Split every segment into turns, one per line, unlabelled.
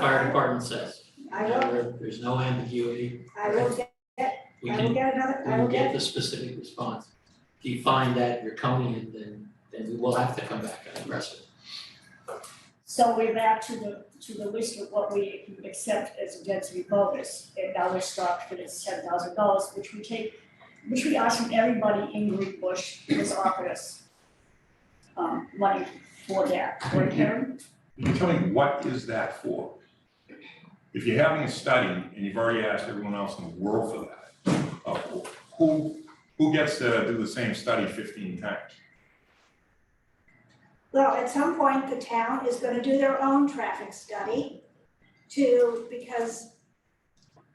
fire department says.
I will,
There- There's no ambiguity.
I will get,
We
I will
can,
get another,
we
I will
will get
get,
the specific response. If you find that you're coming in, then, then we will have to come back and address it.
So we're back to the, to the list of what we accept as a density bonus, and now we're stuck with this ten thousand dollars, which we take, which we ask from everybody in Green Bush who has offered us um, money for that, right Karen?
Can you tell me what is that for? If you're having a study and you've already asked everyone else in the world for that, uh, who, who gets to do the same study fifteen times?
well, at some point, the town is gonna do their own traffic study to, because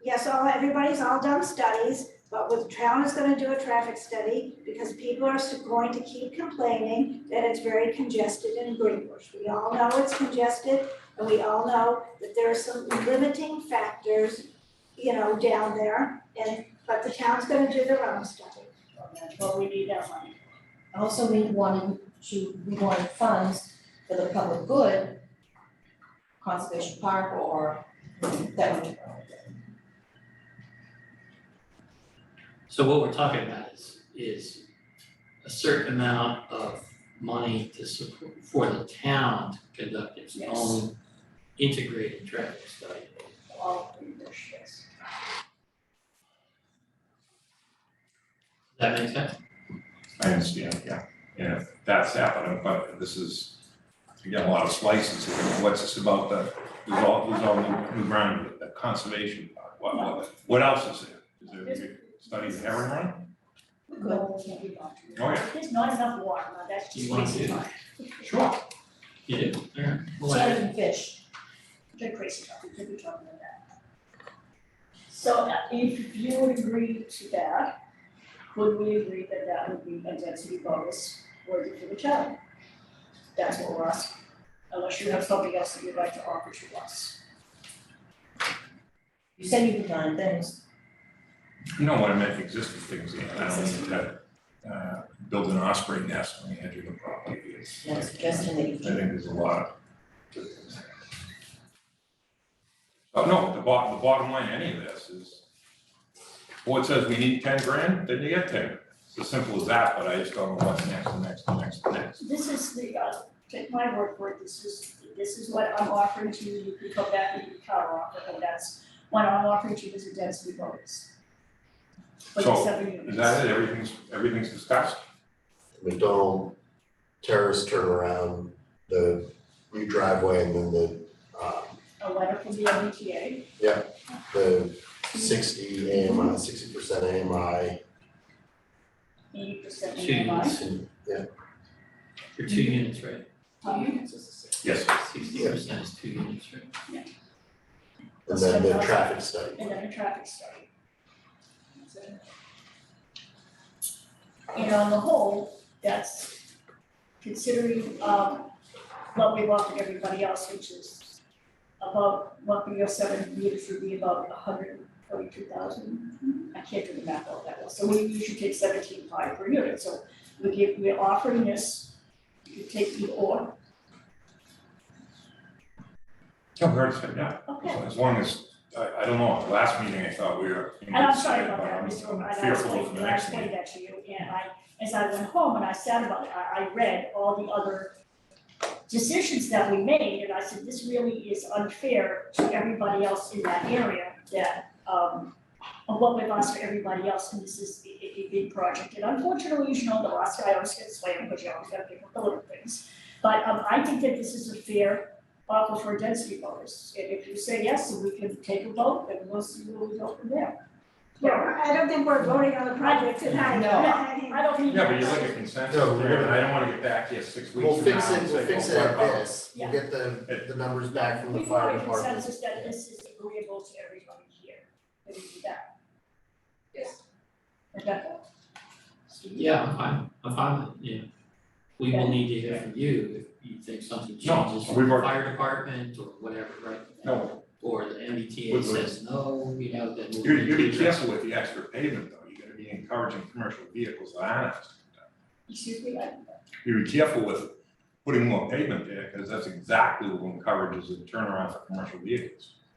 yes, all, everybody's all done studies, but with the town is gonna do a traffic study because people are s- going to keep complaining that it's very congested in Greenbush. We all know it's congested and we all know that there are some limiting factors, you know, down there. And, but the town's gonna do their own study.
That's what we need that money.
Also, we wanted to, we wanted funds for the public good, conservation park or that would.
So what we're talking about is, is a certain amount of money to support, for the town to conduct its
Yes.
own integrated traffic study.
all of Green Bush, yes.
Does that make sense?
I understand, yeah, and if that's happening, but this is, you got a lot of slices, here. what's this about the, there's all, there's all new new ground, the conservation, part. what, what, what else is there? Is there a study of herring run?
No, we can't be bothered.
Oh, yeah.
There's not enough water, now that's just
You want
crazy
to?
talk.
Sure.
You do? Alright, we'll add it.
Salmon and fish,
Good crazy talk, we could be talking about that. So uh, if you would agree to that, would we agree that that would be a density bonus worthy for the town? That's what we're asking, unless you have something else that you'd like to offer to us.
you said you could find things,
You know what, I meant existing things, yeah, I don't need to, uh, build an osprey nest on the edge of the property. It's
that's a
like-
suggestion that you
I
can.
think there's a lot. of- Oh, no, the bottom, the bottom line, any of this is, board says we need ten grand, then you get ten. It's as simple as that, but I just don't know what's next, and next, and next, and next.
This is the, uh, take my word for it, this is, this is what I'm offering to you, you can come back and you can counter offer, and that's what I'm offering to you is a density bonus. For the
So,
seven units.
Is that it? Everything's, everything's discussed?
McDonald terrace turnaround, the new driveway and then the uh
A letter from the MBTA,
the sixty AMI, sixty percent AMI.
eighty percent
Two
in
units.
and-
For two units, right?
Um,
Yes.
Sixty percent is two units, right?
And then the traffic study.
and then a traffic study. That's it. And on the whole, that's considering um what we've offered everybody else, which is about one point oh seven meters would be about hundred forty-two thousand. I can't do the math all that well, so we usually take seventeen five per unit, so we give, we're offering this, you could take the or,
No, we already said, Oh, yeah,
okay.
as long as, I, I don't know, at the last meeting, I thought we were.
And I'm sorry about that, Mr.
I'm
Roman, I
Fearful of
explained,
the
I
next meeting.
explained that to you, and I, as I went home and I sat about it, I, I read all the other decisions that we made, and I said, this really is unfair to everybody else in that area, that, um, of what we've asked for everybody else, and this is a, a- a big project, and unfortunately, you know, the last guy always gets slammed, but you always gotta pick up the little things. But, um, I think that this is a fair offer for a density bonus, and if you say yes, then we can take a vote, and we'll see where we go from there.
Yeah, I don't think we're voting on the project tonight.
No.
I don't think.
Yeah, but you look at consensus,
No, we're
there, and
gonna-
I don't wanna get back here six weeks
We'll
from now
fix
and
it,
say,
we'll fix it
"Oh, what
at
about
this, we'll get the the numbers back from the
We
fire
want a
department.
consensus that this is agreeable to everybody here, that we do that. Yes. Rebecca? Steve?
Yeah, I'm fine, I'm fine, with it, yeah. We will need to hear from you if you think something changes from
we've
the
already-
fire department or whatever, right?
No,
Or the MBTA
We've already-
says no, you know, then we'll.
you, you be
reconsider.
careful with the extra pavement though, you're gonna be encouraging commercial vehicles that aren't.
Excuse me, I,
You be careful with putting more pavement there, because that's exactly what encourages a turnaround for commercial vehicles.